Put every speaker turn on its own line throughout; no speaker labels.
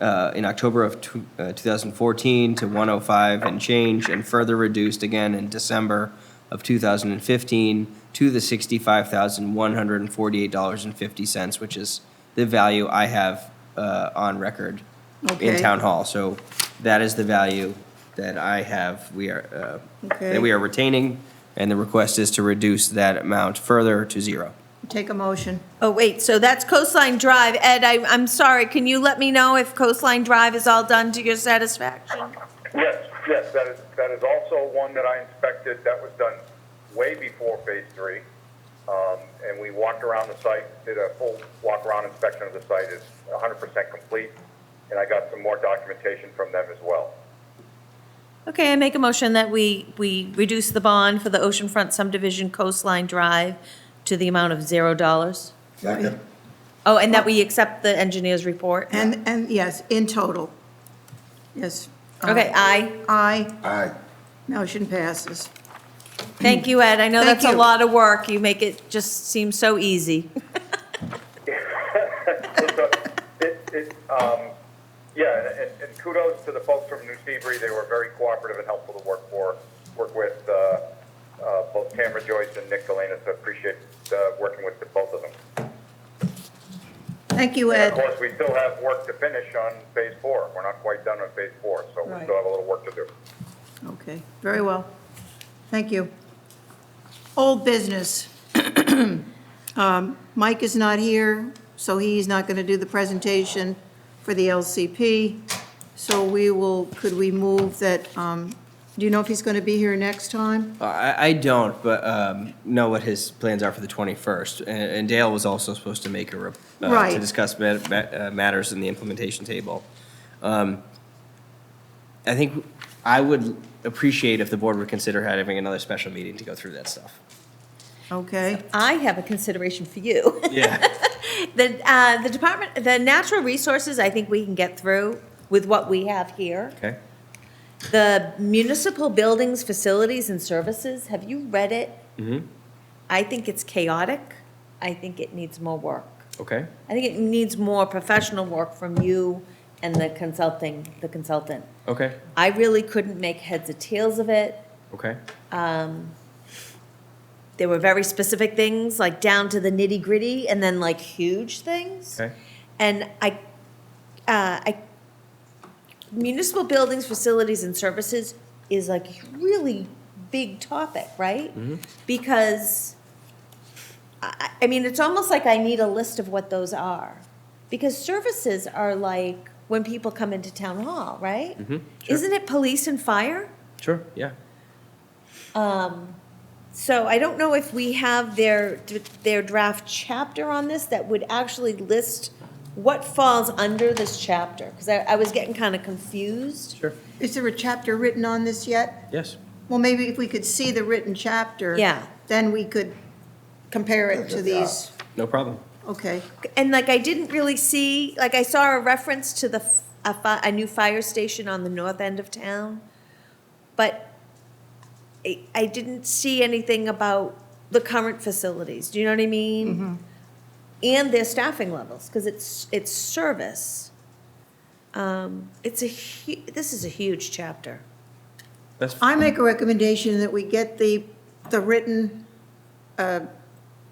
uh, in October of tw- uh, 2014 to 105 and change, and further reduced again in December of 2015 to the $65,148.50, which is the value I have uh, on record in
Okay.
Town Hall. So that is the value that I have, we are, uh,
Okay.
that we are retaining, and the request is to reduce that amount further to zero.
Take a motion.
Oh, wait, so that's Coastline Drive. Ed, I, I'm sorry, can you let me know if Coastline Drive is all done to your satisfaction?
Yes, yes, that is, that is also one that I inspected, that was done way before phase three. Um, and we walked around the site, did a full walk-around inspection of the site, it's hundred percent complete, and I got some more documentation from them as well.
Okay, I make a motion that we, we reduce the bond for the Oceanfront subdivision Coastline Drive to the amount of zero dollars.
Second.
Oh, and that we accept the engineer's report?
And, and yes, in total. Yes. Uh,
Okay, aye.
Aye.
Aye.
Motion passes.
Thank you, Ed. I know
Thank
that's a
you.
lot of work. You make it just seem so easy.
So It, it, um, yeah, and, and kudos to the folks from New Seabury, they were very cooperative and helpful to work for, work with, uh, uh, both Tamara Joyce and Nick Galena, so appreciate, uh, working with the both of them.
Thank you,
And of
Ed.
course, we still have work to finish on phase four. We're not quite done on phase four, so we
Right.
still have a little work to do.
Okay, very well. Thank you. Old business. Um, Mike is not here, so he's not going to do the presentation for the LCP. So we will, could we move that, um, do you know if he's going to be here next time?
I, I don't, but um, know what his plans are for the 21st. And, and Dale was also supposed to make a, rep- uh,
Right.
to discuss ma- ma- uh, matters in the implementation table. Um, I think I would appreciate if the board would consider having another special meeting to go through that stuff.
Okay,
I have a consideration for you.
Yeah.
The, uh, the department, the natural resources, I think we can get through with what we have here.
Okay.
The municipal buildings, facilities, and services, have you read it?
Mm-hmm.
I think it's chaotic. I think it needs more work.
Okay.
I think it needs more professional work from you and the consulting, the consultant.
Okay.
I really couldn't make heads or tails of it.
Okay.
There were very specific things, like down to the nitty gritty, and then like huge things.
Okay.
And I, uh, I, municipal buildings, facilities, and services is like really big topic, right? Because, I, I- I mean, it's almost like I need a list of what those are. Because services are like when people come into town hall, right?
sure.
Isn't it police and fire?
Sure. Yeah.
Um, So I don't know if we have their, their draft chapter on this that would actually list what falls under this chapter, because I, I was getting kind of confused.
Sure.
is there a chapter written on this yet?
Yes.
Well, maybe if we could see the written chapter.
Yeah.
Then we could compare it to these,
No problem.
okay.
And like, I didn't really see, like, I saw a reference to the, f- a, fi- a new fire station on the north end of town, but I, I didn't see anything about the current facilities, do you know what I mean? And their staffing levels, because it's, it's service. Um, it's a hu, this is a huge chapter.
That's
I make a recommendation that we get the, the written uh,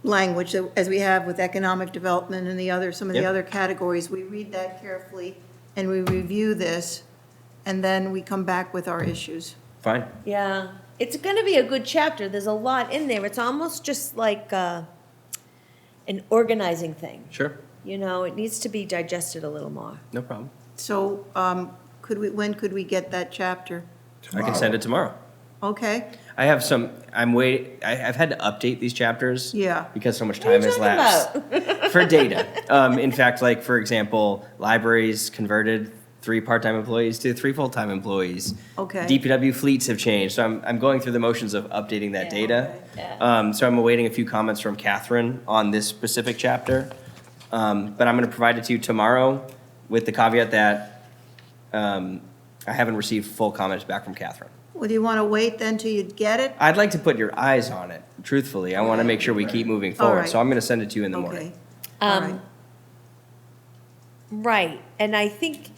language that- as we have with economic development and the other, some of the
Yep.
other categories. We read that carefully and we review this, and then we come back with our issues.
fine.
Yeah, it's gonna be a good chapter, there's a lot in there, it's almost just like, uh, an organizing thing.
Sure.
You know, it needs to be digested a little more.
No problem.
So um, could we, when could we get that chapter?
I can send it tomorrow.
Okay,
I have some. I'm wait. I, I've had to update these chapters.
Yeah.
Because so much
are you
time has
talking
lapsed for data. Um, in fact, like for example, libraries converted three part-time employees to three full-time employees.
Okay.
DPW fleets have changed, so I'm I'm going through the motions of updating that
Yeah,
data.
okay.
Um, so I'm awaiting a few comments from Catherine on this specific chapter, um, but I'm going to provide it to you tomorrow with the caveat that um, I haven't received full comments back from Catherine.
well, do you want to wait then till you get it?
I'd like to put your eyes on it, truthfully. I want to make sure we keep moving
All
forward,
right.
so I'm going to send it to you in the morning.
Okay, all right.
Right, and I think